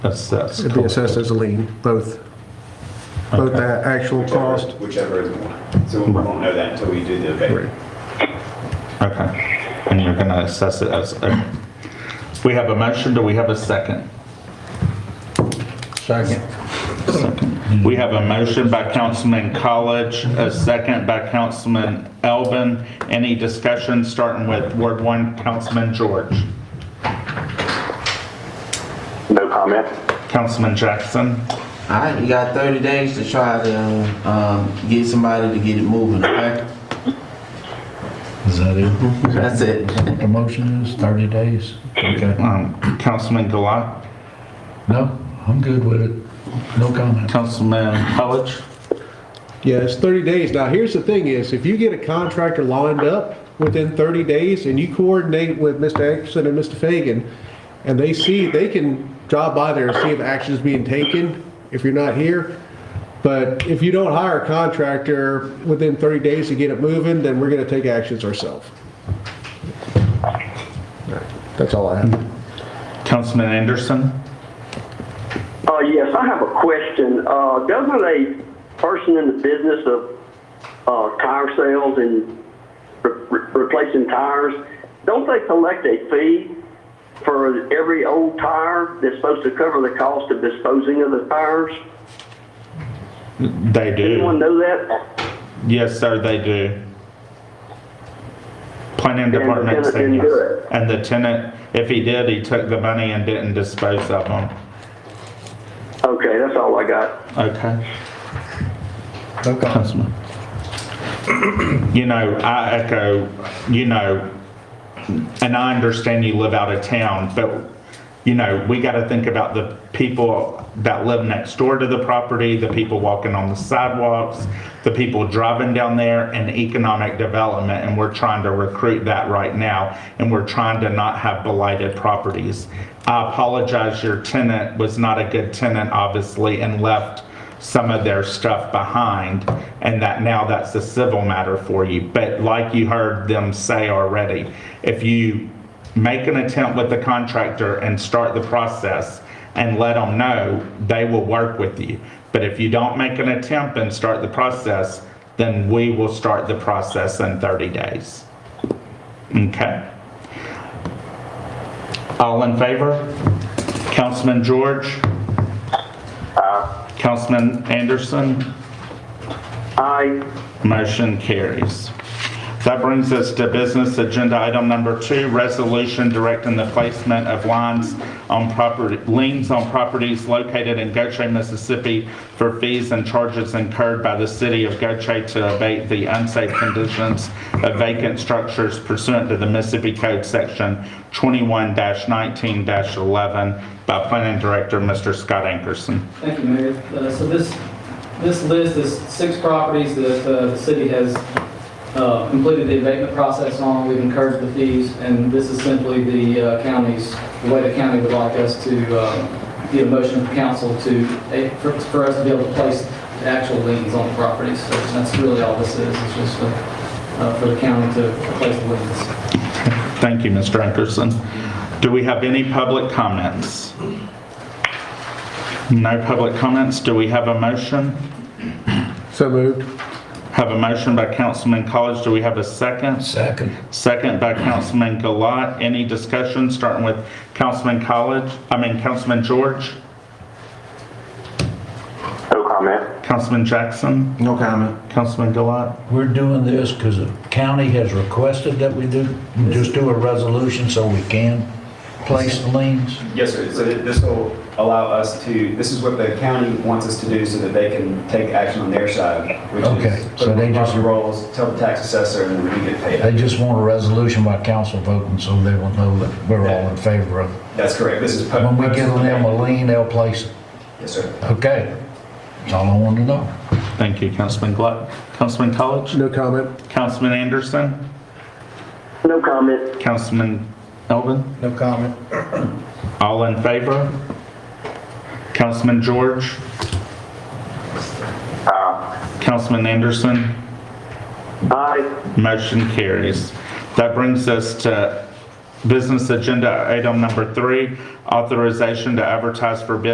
That's, that's. It'd be assessed as a lien, both, both the actual cost. Whichever is more. So we won't know that until we do the abatement. Okay, and you're gonna assess it as, a- we have a motion, do we have a second? Second. We have a motion by Councilman College, a second by Councilman Elbin. Any discussion, starting with Ward 1, Councilman George? No comment. Councilman Jackson? All right, you got 30 days to try to um, um, get somebody to get it moving, okay? Is that it? That's it. The motion is 30 days? Okay. Um, Councilman Gilat? No, I'm good with it. No comment. Councilman College? Yeah, it's 30 days. Now, here's the thing is, if you get a contractor lined up within 30 days and you coordinate with Mr. Anderson and Mr. Fagan, and they see, they can drop by there and see if action's being taken if you're not here. But if you don't hire a contractor within 30 days to get it moving, then we're going to take actions ourselves. That's all I have. Councilman Anderson? Uh, yes, I have a question. Uh, doesn't a person in the business of, uh, tire sales and re- re- replacing tires, don't they collect a fee for every old tire that's supposed to cover the cost of disposing of the tires? They Anyone do. know that? Yes, sir, they do. Planning the Department tenant said didn't yes. do it. And the tenant, if he did, he took the money and didn't dispose of them. Okay, that's all I got. Okay. No comment. Councilman. You know, I echo, you know, and I understand you live out of town, but, you know, we got to think about the people that live next door to the property, the people walking on the sidewalks, the people driving down there, and economic development, and we're trying to recruit that right now, and we're trying to not have blighted properties. I apologize, your tenant was not a good tenant, obviously, and left some of their stuff behind, and that now that's a civil matter for you. But like you heard them say already, if you make an attempt with the contractor and start the process and let them know, they will work with you. But if you don't make an attempt and start the process, then we will start the process in 30 days. Okay? All in favor? Councilman George? Councilman Anderson? I, Motion carries. That brings us to business agenda item number two, resolution directing the placement of lines on property, liens on properties located in Goche, Mississippi for fees and charges incurred by the city of Goche to abate the unsafe conditions of vacant structures pursuant to the Mississippi Code Section 21-19-11 by Planning Director, Mr. Scott Ankerson. Thank you, Mayor. Uh, So this, this list is six properties that uh, the city has uh, completed the abatement process on. We've incurred the fees, and this is simply the uh, county's, the way the county would like us to uh, get a motion from council to, eh, for for us to be able to place the actual liens on the properties. So that's really all this is, it's just uh, uh, for the county to place the liens. Thank you, Mr. Ankerson. Do we have any public comments? No public comments. Do we have a motion? So moved. Have a motion by Councilman College. Do we have a second? Second. Second by Councilman Gilat. Any discussion, starting with Councilman College, I mean Councilman George, no comment. Councilman Jackson, No comment. Councilman Gilat? We're doing this because the county has requested that we do, just do a resolution so we can place the liens. Yes, sir. So th- this will allow us to, this is what the county wants us to do so that they can take action on their side, which Okay, is put so them they on just- property rolls, tell the tax assessor, and then we get They paid. just want a resolution by council voting so they will know that we're all in favor of it. That's correct. This is. po- When we give them a lien, they'll place it. Yes, sir. Okay. That's all I wanted to know. Thank you, Councilman Gilat. Councilman College, No comment. Councilman Anderson, No comment. Councilman Elvin? No comment. All in favor? Councilman George? Councilman Anderson? I. Motion carries. That brings us to business agenda item number three, authorization to advertise for bid